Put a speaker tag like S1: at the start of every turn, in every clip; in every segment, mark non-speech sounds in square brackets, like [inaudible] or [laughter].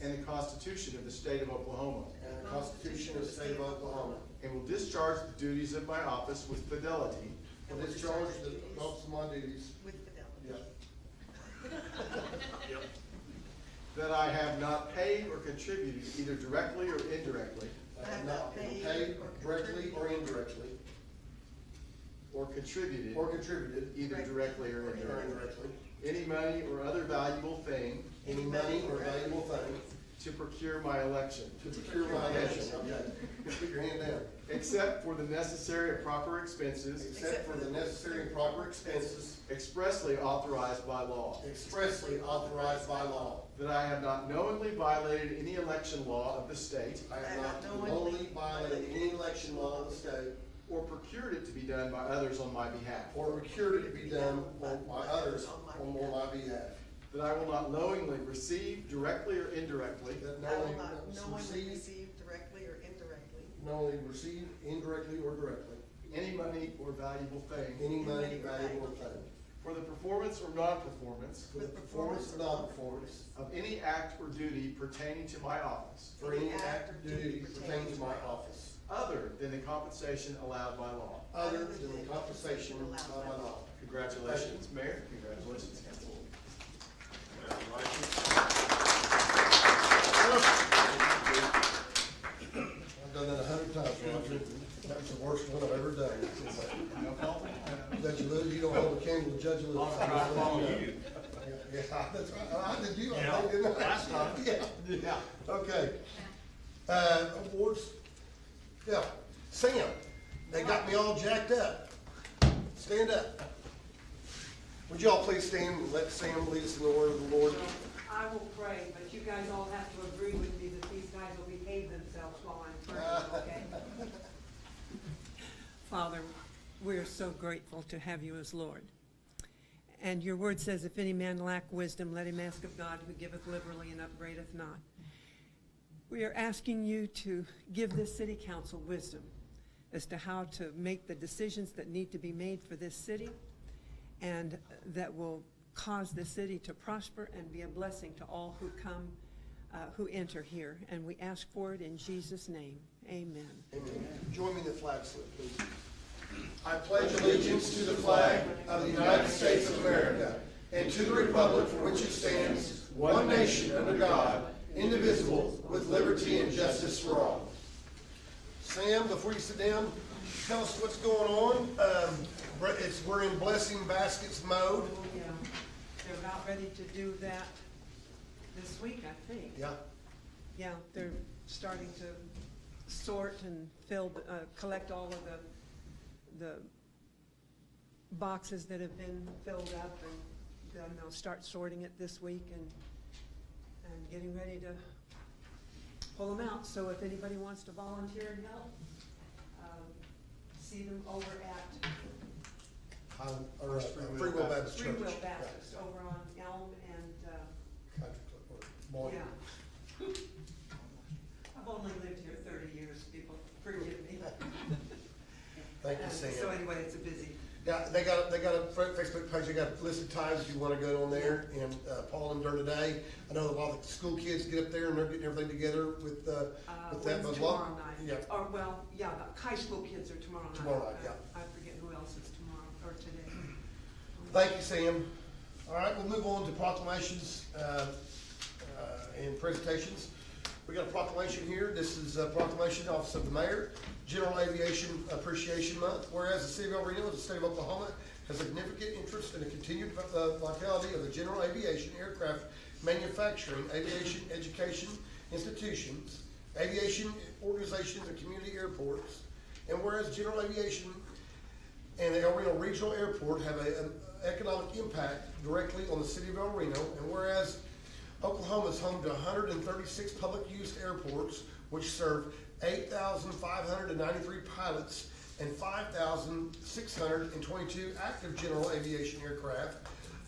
S1: and the Constitution of the State of Oklahoma,
S2: and the Constitution of the State of Oklahoma,
S1: and will discharge the duties of my office with fidelity.
S2: and discharge the office of my duties
S3: with fidelity.
S2: yeah,
S1: That I have not paid or contributed either directly or indirectly,
S2: I have uh, not been paid directly or indirectly,
S1: or contributed
S2: or contributed
S1: either directly or
S2: or
S1: indirectly,
S2: indirectly,
S1: any money or other valuable thing
S2: any money or valuable thing
S1: to procure my election,
S2: to procure my election. Okay, put your hand down.
S1: except for the necessary and proper expenses
S2: Except for the necessary and proper expenses
S1: expressly authorized by law.
S2: expressly authorized by law.
S1: That I have not knowingly violated any election law of the state
S2: I have not knowingly violated any election law of the state
S1: or procured it to be done by others on my behalf.
S2: or procured it to be done on- by others on my behalf.
S1: That I will not knowingly receive directly or indirectly
S2: That
S3: I will
S2: knowingly
S3: not knowingly
S2: receive,
S3: receive directly or indirectly
S2: knowingly receive indirectly or directly,
S1: any money or valuable thing
S2: any money valuable or thing
S1: for the performance or non-performance
S2: for the performance or non-performance
S1: of any act or duty pertaining to my office,
S2: for any act or duty pertaining to my office,
S1: other than the compensation allowed by law.
S2: other than the compensation of my law.
S1: Congratulations, Mayor. Congratulations, Council.
S2: I've done that a hundred times, Roger. That's the worst one I've ever done. Judge Lewis, you don't hold a candle to Judge Lewis.
S4: I'll try to follow you.
S2: Yeah, that's right. I did you, I
S4: Yeah,
S2: think, didn't I?
S4: last time.
S2: Yeah,
S1: Yeah.
S2: okay. Uh, awards, yeah. Sam, they got me all jacked up. Stand up. Would you all please stand and let Sam lead us in the word of the Lord?
S5: I will pray, but you guys all have to agree with me that these guys will behave themselves while I'm praying, okay?
S6: [laughs] Father, we are so grateful to have you as Lord. And your word says, if any man lack wisdom, let him ask of God who giveth liberally and upbraideth not. We are asking you to give this city council wisdom as to how to make the decisions that need to be made for this city and that will cause the city to prosper and be a blessing to all who come, uh, who enter here. And we ask for it in Jesus' name. Amen.
S2: Join me in the flag salute, please. I pledge allegiance to the flag of the United States of America and to the republic for which it stands, one nation under God, indivisible, with liberty and justice for all. Sam, before you sit down, tell us what's going on. Um, we're- It's, we're in blessing baskets mode.
S6: Yeah, they're about ready to do that this week, I think.
S2: Yeah,
S6: Yeah, they're starting to sort and fill, uh, collect all of the, the boxes that have been filled up and then they'll start sorting it this week and, and getting ready to pull them out. So if anybody wants to volunteer and help, um, see them over at
S2: I'm- or, uh, Free Will Baptist Church.
S6: Free Will Baptist over on Elm and, uh,
S2: Country Club, or Boyd.
S6: Yeah. [laughs] I've only lived here thirty years, people forgive me.
S2: Thank you,
S6: Um,
S2: Sam.
S6: So anyway, it's a busy,
S2: Yeah, they got, a- they got a fa- Facebook page, they got a list of times if you wanna go on there, and, uh, Paul and her today. I know a lot of the school kids get up there and they're getting everything together with, uh,
S6: uh,
S2: with that.
S6: when's
S2: but a lot-
S6: tomorrow night?
S2: Yeah,
S6: Or, well, yeah, the high school kids are tomorrow night.
S2: Tomorrow night,
S6: Uh,
S2: yeah.
S6: I forget who else is tomorrow, or today.
S2: thank you, Sam. All right, we'll move on to proclamations, uh, uh, and presentations. We got a proclamation here, this is a proclamation, Office of the Mayor, General Aviation Appreciation Month. Whereas the city of El Reno, the state of Oklahoma, has significant interest in the continued uh, vitality of the general aviation aircraft manufacturing, aviation education institutions, aviation organizations, and community airports. And whereas general aviation and the El Reno Regional Airport have a- an economic impact directly on the city of El Reno. And whereas Oklahoma is home to 136 public-use airports, which serve 8,593 pilots and 5,622 active general aviation aircraft.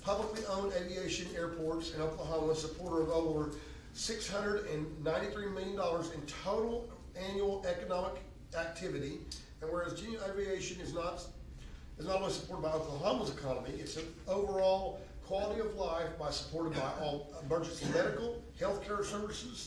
S2: Publicly owned aviation airports in Oklahoma, supporter of over $693 million in total annual economic activity. And whereas general aviation is not is not only supported by Oklahoma's economy, it's an overall quality of life by supported by all emergency medical, healthcare services,